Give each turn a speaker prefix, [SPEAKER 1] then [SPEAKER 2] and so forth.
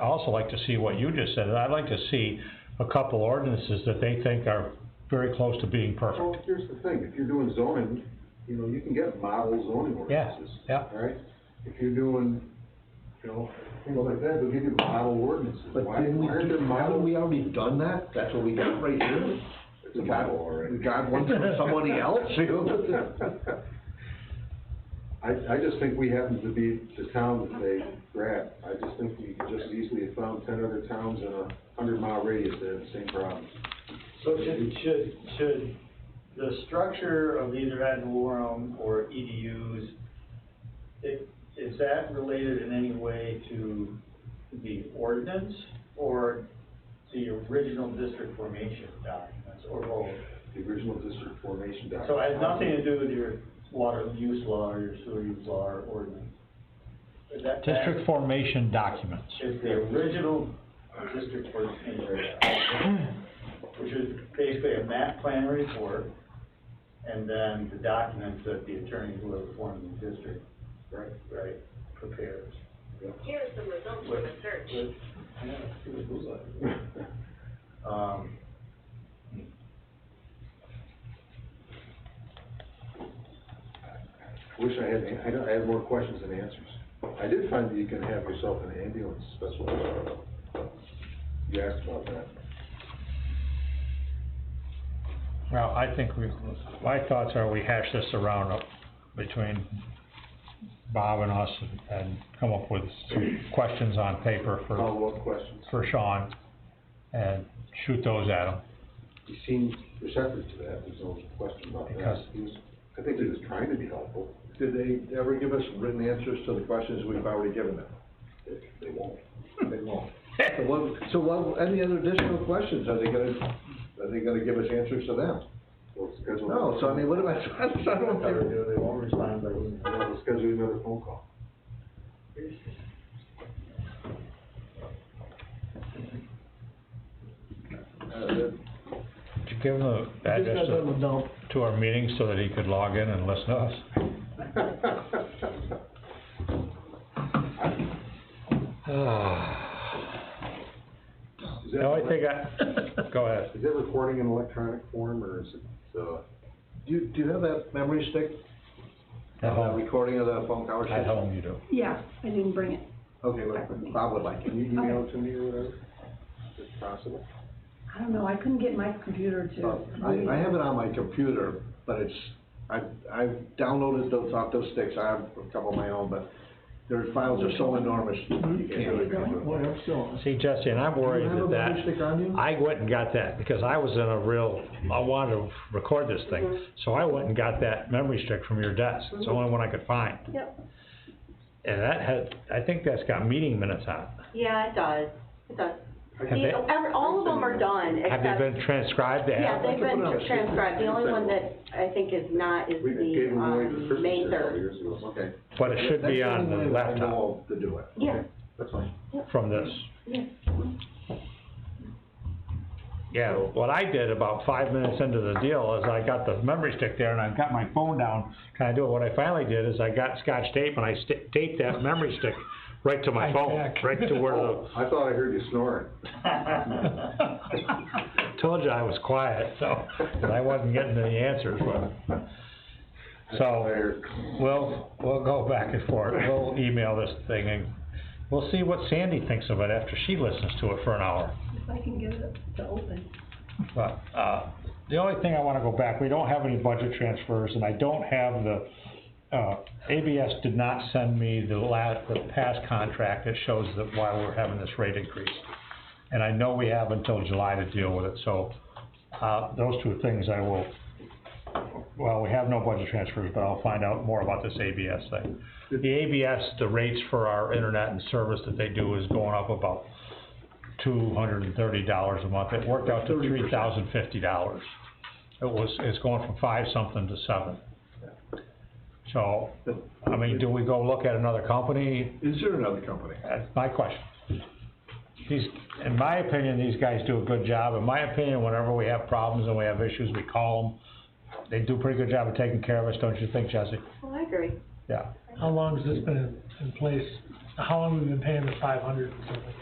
[SPEAKER 1] I also like to see what you just said, and I'd like to see a couple ordinances that they think are very close to being
[SPEAKER 2] Well,
[SPEAKER 1] perfect.
[SPEAKER 2] here's the thing, if you're doing zoning, you know, you can get model zoning
[SPEAKER 1] Yeah,
[SPEAKER 2] ordinances.
[SPEAKER 1] yeah.
[SPEAKER 2] Alright, if you're doing, you know, things like that, they'll give you model ordinances,
[SPEAKER 3] But
[SPEAKER 2] why,
[SPEAKER 3] didn't we,
[SPEAKER 2] why aren't there
[SPEAKER 3] haven't
[SPEAKER 2] model?
[SPEAKER 3] we already done that? That's what we got right here.
[SPEAKER 2] It's a
[SPEAKER 3] We
[SPEAKER 2] model
[SPEAKER 3] got,
[SPEAKER 2] already.
[SPEAKER 3] we got one from somebody else.
[SPEAKER 2] I, I just think we happen to be the town that they grabbed, I just think we could just easily have found ten other towns in a hundred mile radius that have the same problem.
[SPEAKER 4] So should, should, should the structure of either ad valorem or E EDUs, i- is that related in any way to the ordinance or the original district formation documents or both?
[SPEAKER 2] The original district formation document.
[SPEAKER 4] So it has nothing to do with your water use law or your sewer use law or ordinance? Is that- that-
[SPEAKER 1] District formation documents.
[SPEAKER 4] is the original district for area, which is basically a map plan report, and then the documents that the attorney who has formed the district,
[SPEAKER 2] Right.
[SPEAKER 4] right, prepares.
[SPEAKER 5] Here's the results of the search.
[SPEAKER 4] With- yeah, see what it looks like. Um,
[SPEAKER 2] Wish I had, I don't, I have more questions than answers. I did find that you can have yourself an ambulance specialist. You asked about that.
[SPEAKER 1] Well, I think we, my thoughts are we hash this around up between Bob and us and- and come up with some questions on paper for,
[SPEAKER 2] Follow-up questions.
[SPEAKER 1] for Sean and shoot those at him.
[SPEAKER 2] He seemed receptive to that, there's no question about that.
[SPEAKER 1] Because-
[SPEAKER 2] He was, I think he was trying to be helpful.
[SPEAKER 3] Did they ever give us written answers to the questions we've already given them?
[SPEAKER 2] They they won't.
[SPEAKER 3] They won't. So what, so what, any other additional questions? Are they gonna, are they gonna give us answers to them?
[SPEAKER 2] We'll schedule.
[SPEAKER 3] No, so I mean, what am I, I don't
[SPEAKER 4] Whatever
[SPEAKER 3] think-
[SPEAKER 4] they do, they won't respond by email.
[SPEAKER 2] We'll schedule another phone call.
[SPEAKER 1] Did you give him the address to- to our meeting so that he could log in and listen to us?
[SPEAKER 2] Is
[SPEAKER 1] The only
[SPEAKER 2] that,
[SPEAKER 1] thing I, go ahead.
[SPEAKER 2] is that recording in electronic form, or is it, uh?
[SPEAKER 3] Do you, do you have that memory stick?
[SPEAKER 1] At
[SPEAKER 3] That
[SPEAKER 1] home,
[SPEAKER 3] Recording of the phone conversation?
[SPEAKER 1] at home you do.
[SPEAKER 6] Yeah, I didn't bring it.
[SPEAKER 3] Okay, well, Bob would like it.
[SPEAKER 2] Can you email it to me or whatever? Is it possible?
[SPEAKER 6] I don't know, I couldn't get my computer to.
[SPEAKER 3] Oh, I, I have it on my computer, but it's, I, I've downloaded those off those sticks, I have a couple of my own, but their files are so enormous, you can't really go through them.
[SPEAKER 1] See, Jesse, and I'm
[SPEAKER 3] Do you
[SPEAKER 1] worried
[SPEAKER 3] have a
[SPEAKER 1] that
[SPEAKER 3] memory
[SPEAKER 1] that,
[SPEAKER 3] stick on you?
[SPEAKER 1] I went and got that, because I was in a real, I wanted to record this thing,
[SPEAKER 3] Mm-hmm.
[SPEAKER 1] so I went and got that memory stick from your desk, it's the only one I could find.
[SPEAKER 6] Yep.
[SPEAKER 1] And that had, I think that's got meeting minutes on it.
[SPEAKER 7] Yeah, it does, it does.
[SPEAKER 1] Have
[SPEAKER 7] The-
[SPEAKER 1] they,
[SPEAKER 7] every- all of them are done,
[SPEAKER 1] have
[SPEAKER 7] except,
[SPEAKER 1] they been transcribed to
[SPEAKER 7] yeah,
[SPEAKER 1] have?
[SPEAKER 7] they've been
[SPEAKER 3] Put it on.
[SPEAKER 7] transcribed, the only one that I think is not is
[SPEAKER 2] We gave
[SPEAKER 7] the,
[SPEAKER 2] them away to
[SPEAKER 7] um,
[SPEAKER 2] Christmas
[SPEAKER 7] May
[SPEAKER 2] here a couple
[SPEAKER 7] third.
[SPEAKER 2] years ago.
[SPEAKER 3] Okay.
[SPEAKER 1] But it should be
[SPEAKER 3] That's
[SPEAKER 1] on
[SPEAKER 3] only
[SPEAKER 1] the
[SPEAKER 3] way I
[SPEAKER 1] laptop
[SPEAKER 3] know of to do it.
[SPEAKER 7] Yeah.
[SPEAKER 3] That's fine.
[SPEAKER 1] from this.
[SPEAKER 7] Yeah.
[SPEAKER 1] Yeah, what I did about five minutes into the deal is I got the memory stick there and I got my phone down, trying to do it. What I finally did is I got scotch tape and I sta- taped that memory stick right to my phone, right to where the,
[SPEAKER 2] Oh, I thought I heard you snoring.
[SPEAKER 1] told you I was quiet, so, 'cause I wasn't getting any answers, but. So,
[SPEAKER 2] heard.
[SPEAKER 1] we'll, we'll go back and forth, we'll email this thing and we'll see what Sandy thinks of it after she listens to it for an hour.
[SPEAKER 6] If I can get it to open.
[SPEAKER 1] But, uh, the only thing I wanna go back, we don't have any budget transfers, and I don't have the, uh, ABS did not send me the la, the past contract that shows that why we're having this rate increase. And I know we have until July to deal with it, so, uh, those two things I will, well, we have no budget transfers, but I'll find out more about this ABS thing. The ABS, the rates for our internet and service that they do is going up about two hundred and thirty dollars a month. It worked out to
[SPEAKER 3] 30%.
[SPEAKER 1] three thousand fifty dollars. It was, it's going from five something to seven. So, I mean, do we go look at another company?
[SPEAKER 3] Is there another company?
[SPEAKER 1] That's my question. These, in my opinion, these guys do a good job. In my opinion, whenever we have problems and we have issues, we call them. They do a pretty good job of taking care of us, don't you think, Jesse?
[SPEAKER 7] Well, oh, I agree.
[SPEAKER 1] Yeah.
[SPEAKER 8] How long has this been in- in place? How long have we been paying the five hundred and something?